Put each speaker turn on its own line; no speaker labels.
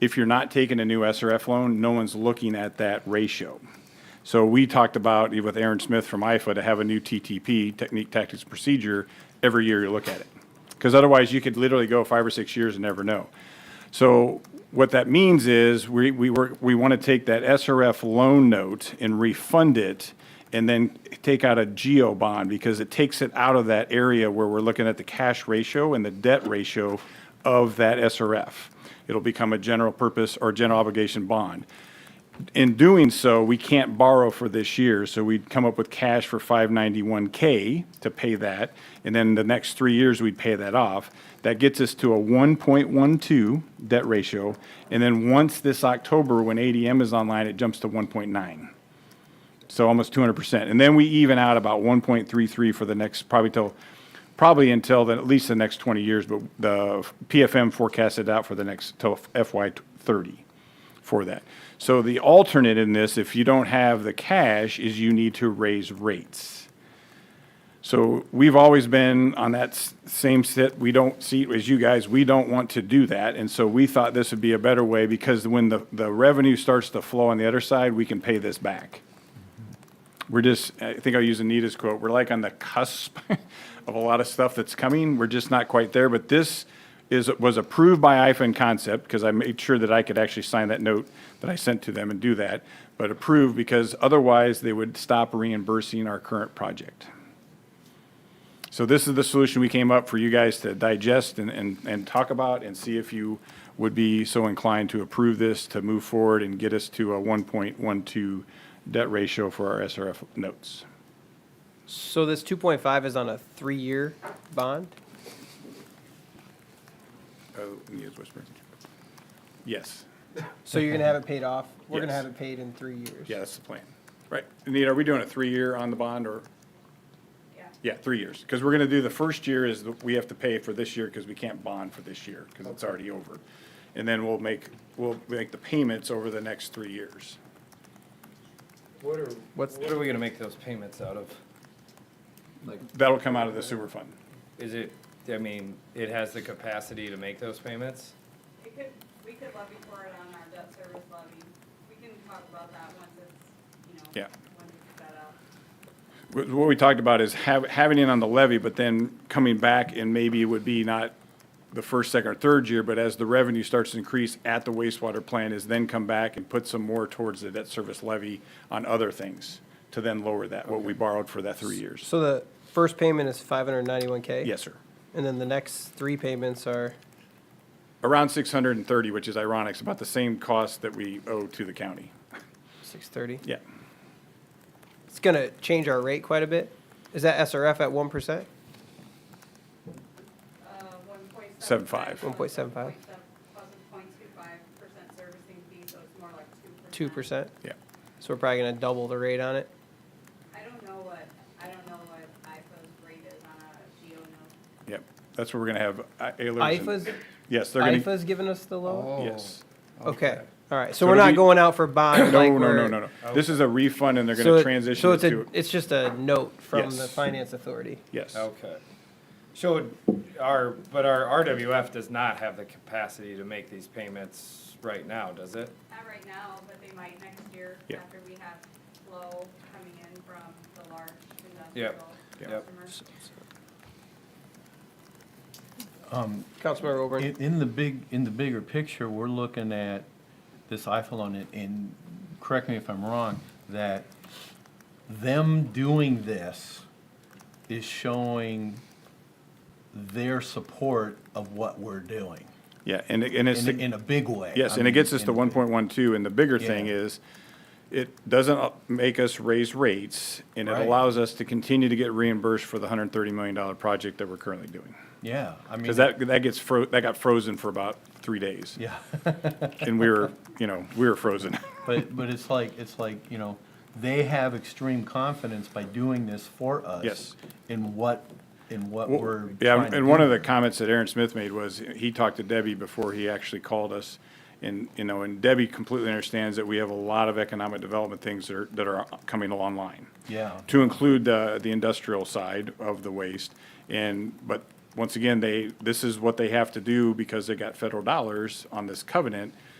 if you're not taking a new SRF loan, no one's looking at that ratio. So we talked about with Aaron Smith from IFA to have a new TTP, technique, tactics, and procedure, every year you look at it. Because otherwise you could literally go five or six years and never know. So what that means is we, we work, we want to take that SRF loan note and refund it and then take out a geo bond because it takes it out of that area where we're looking at the cash ratio and the debt ratio of that SRF. It'll become a general purpose or general obligation bond. In doing so, we can't borrow for this year, so we'd come up with cash for 591K to pay that, and then the next three years, we'd pay that off. That gets us to a 1.12 debt ratio, and then once this October, when ADM is online, it jumps to 1.9. So almost 200%. And then we even out about 1.33 for the next, probably till, probably until then, at least the next 20 years, but the PFM forecasted out for the next, till FY 30 for that. So the alternate in this, if you don't have the cash, is you need to raise rates. So we've always been on that s- same sit, we don't see, as you guys, we don't want to do that. And so we thought this would be a better way because when the, the revenue starts to flow on the other side, we can pay this back. We're just, I think I'll use Anita's quote, we're like on the cusp of a lot of stuff that's coming. We're just not quite there, but this is, was approved by IFA in concept, because I made sure that I could actually sign that note that I sent to them and do that, but approved because otherwise they would stop reimbursing our current project. So this is the solution we came up for you guys to digest and, and, and talk about and see if you would be so inclined to approve this, to move forward and get us to a 1.12 debt ratio for our SRF notes.
So this two point five is on a three-year bond?
Oh, Mia's whispering. Yes,
So you're gonna have it paid off? We're gonna
Mm-hmm. Yes.
have it paid in three years?
yeah, that's the plan. Right, Anita, are we doing a three-year on the bond or? Yeah. Yeah, three years, because we're gonna do, the first year is, that we have to pay for this year because we can't bond for this year, because it's already over. And then we'll make, we'll make the payments over the next three years.
What are,
What's-
what are we gonna make those payments out of? Like,
That'll come out of the sewer fund.
is it, I mean, it has the capacity to make those payments?
We could, we could levy for it on our debt service levy. We can talk about that once it's, you know,
Yeah.
once it's set up.
Wh- What we talked about is hav- having it on the levy, but then coming back and maybe it would be not the first, second, or third year, but as the revenue starts to increase at the wastewater plant, is then come back and put some more towards the debt service levy on other things to then lower that, what we borrowed for that three years.
So eh, the first payment is five hundred and ninety-one K?
Yes, sir.
And then the next three payments are,
Around six hundred and thirty, which is ironic, it's about the same cost that we owe to the county.
Six thirty.
Yeah.
It's gonna change our rate quite a bit. Is that SRF at one percent?
Uh, one point
Seven five.
1.75.
Plus a point two five percent servicing fee, so it's more like two percent.
Two percent?
Yeah.
So we're probably gonna double the rate on it.
I don't know what, I don't know what IFO's rate is on a geo note.
Yep. That's what we're gonna have. uh, Ehlers and-
IFA's,
Yes, they're gonna.
IFA's giving us the low?
Yes.
Okay, all right. So
So
we're
it'll
not
be-
going out for bond like
No, no, no,
we're-
no, no. This is a refund and they're
So
gonna
it-
transition
So
it
it's a,
to,
it's just a note from the
Yes.
finance authority.
yes.
Oh, Okay. So our, but our RWF does not have the capacity to make these payments right now, does it?
Not right now, but they might next year
Yeah.
after we have flow coming in from the large
Yeah.
industrial
Yeah.
customers.
Councilmember Auburn,
In, in the big, in the bigger picture, we're looking at this iPhone on it, and correct me if I'm wrong, that them doing this is showing their support of what we're doing,
Yeah, and, it- and it's.
in, in a big way.
Yes,
I
and it
mean,
gets us
in
to
a big-
one point one two, and the bigger thing
Yeah.
is, it doesn't uh, make us raise rates, and it
Right.
allows us to continue to get reimbursed for the hundred and thirty million dollar project that we're currently doing.
Yeah, I mean.
Because that, that gets fro, that got frozen for about three days,
Yeah,
and we were, you know, we were frozen.
but, but it's like, it's like, you know, they have extreme confidence by doing this for us.
Yes.
In what, in what
Well,
we're.
Yeah,
trying to
and one
do.
of the comments that Aaron Smith made was, he talked to Debbie before he actually called us. And, you know, and Debbie completely understands that we have a lot of economic development things that are, that are coming online.
Yeah.
To include the, the industrial side of the waste. And, but once again, they, this is what they have to do because they got federal dollars on this covenant.